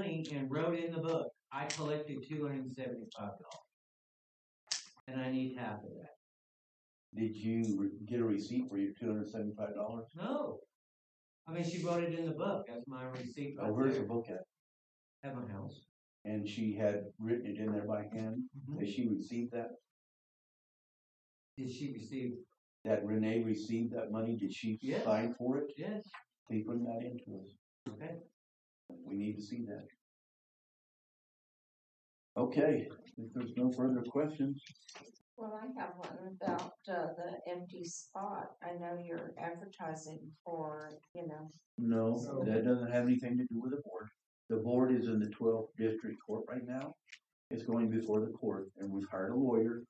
thing and wrote in the book, I collected two hundred and seventy-five dollars. And I need half of that. Did you re- get a receipt for your two hundred seventy-five dollars? No. I mean, she wrote it in the book. That's my receipt Oh, right where's the there book at? at my house. And she had written it in there by hand. Mhm. Did she receive that? Did she receive? That Renee received that money? Did she Yeah. sign for it? Yes. Please bring that into us. Okay. We need to see that. Okay, if there's no further questions, Well, I have one about uh, the empty spot. I know you're advertising for, you know, no, that doesn't have anything to do with the board. The board is in the twelfth district court right now. It's going before the court and we've hired a lawyer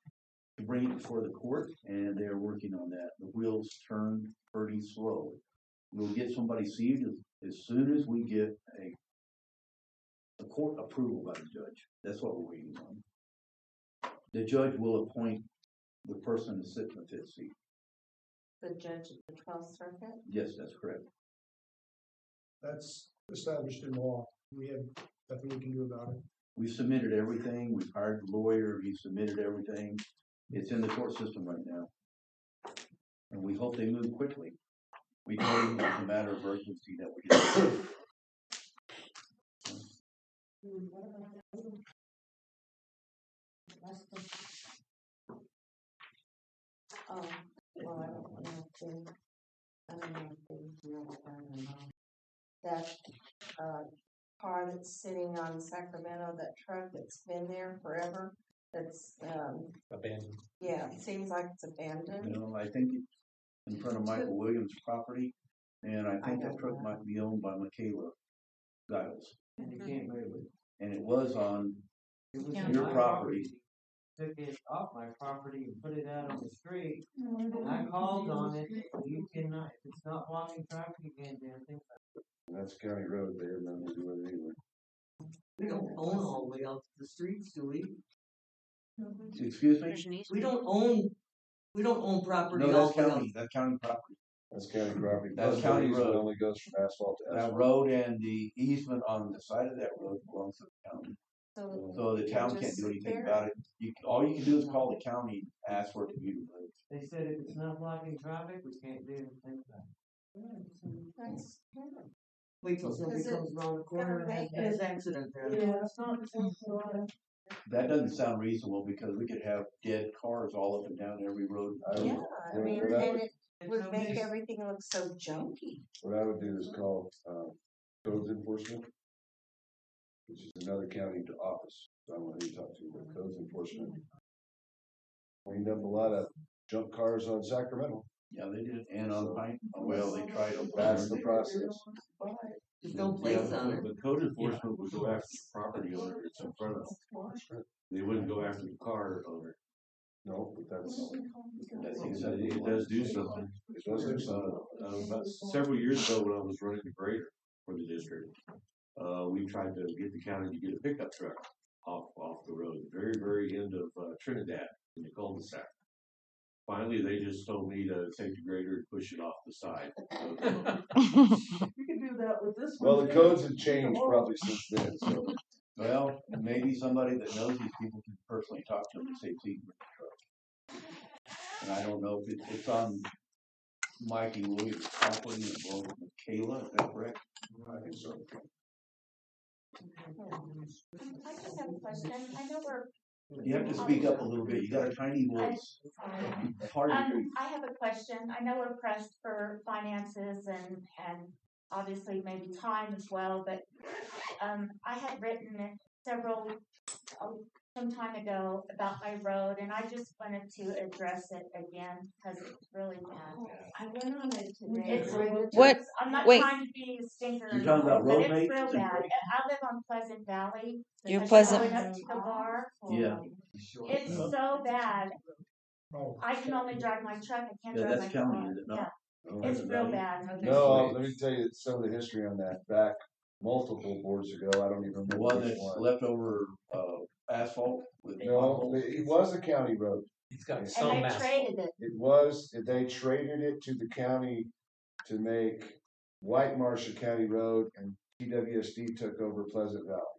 to bring it before the court and they're working on that. The wheels turn pretty slow. We'll get somebody seated as, as soon as we get a a court approval by the judge. That's what we're waiting on. The judge will appoint the person to sit in the fifth seat. the judge of the twelfth circuit. Yes, that's correct. That's established in law. We have nothing we can do about it. We submitted everything, we've hired a lawyer, he submitted everything, it's in the court system right now. And we hope they move quickly. We told them it's a matter of urgency that we do. Oh, well, I don't know if they, I don't know if they do it, I don't know. That, uh, car that's sitting on Sacramento, that truck that's been there forever, that's, um, abandoned. yeah, it seems like it's abandoned. You know, I think it's in front of Michael Williams' property, and I think that truck might be owned by Michaela Giles. And they can't wait with And it was on, it. It was Yeah. on Your my property. Took it off my property and put it out on the street. And I called on it. You cannot, if it's not blocking traffic, you can't do anything. That's county road there, nothing to do with it anyway. We don't own all the way out to the streets, do we? excuse me? There's an easement. We don't own, we don't own property No, all that's the way out. county, that's county property. That's county property. That's Those county roads that road. Only goes from asphalt to That asphalt. road and the easement on the side of that road belongs to the county. So So the town can't do anything about it. You, all you can do is call the county and ask for it to be removed. They said if it's not blocking traffic, we can't do anything about it. That's terrible. Wait till somebody Is it comes around the corner and has- gonna make has accident there. it's not acceptable. That doesn't sound reasonable because we could have dead cars all up and down every road. I Yeah, would, I Yeah, mean, we're not- and it It's would so make nice. everything look so junky. what I would do is call, um, codes enforcement, which is another county to office. So I want to talk to the codes enforcement. Cleaned up a lot of junk cars on Sacramento. Yeah, they did. And on Pine, well, they tried to. That's the process. Just don't place on it. But code enforcement would go after the property owner it's in front of them. They wouldn't go after the car owner. No, but that's, That's exactly It what- does do something. it does do something. Uh, about several years ago, when I was running the grader for the district, uh, we tried to get the county to get a pickup truck off, off the road, very, very end of uh, Trinidad in the cul-de-sac. Finally, they just told me to take the grader and push it off the side. You can do that with this Well, the codes have changed probably since then, so. Well, maybe somebody that knows these people can personally talk to them and say, please. bring the truck." And I don't know if it, it's on Mikey Williams' property as well as Michaela, is that correct? I think so. I just have a question. I know we're You have to speak up a little bit. You got a tiny voice. Hard to hear. Um, I have a question. I know we're pressed for finances and, and obviously maybe time as well, but, um, I had written several, oh, some time ago about my road and I just wanted to address it again because it's really bad. I went on it today. It's- What? I'm not Wait. trying to be a stinker. You're talking about but road it's maintenance real and bad. road- I live on Pleasant Valley. You're It's Pleasant- Going up to the bar. Yeah. It's so bad. Oh, I can only drive my truck. I can't Yeah, drive my car. that's county, is it not? Yeah. Oh, It's that's real about it. bad. No, let me tell you some of the history on that. Back multiple boards ago, I don't even The remember one which that's one. left over, uh, asphalt with. No, it it was a county road. He's got And some And they mass. traded it. It was, they traded it to the county to make White Marsh a county road and TWSD took over Pleasant Valley.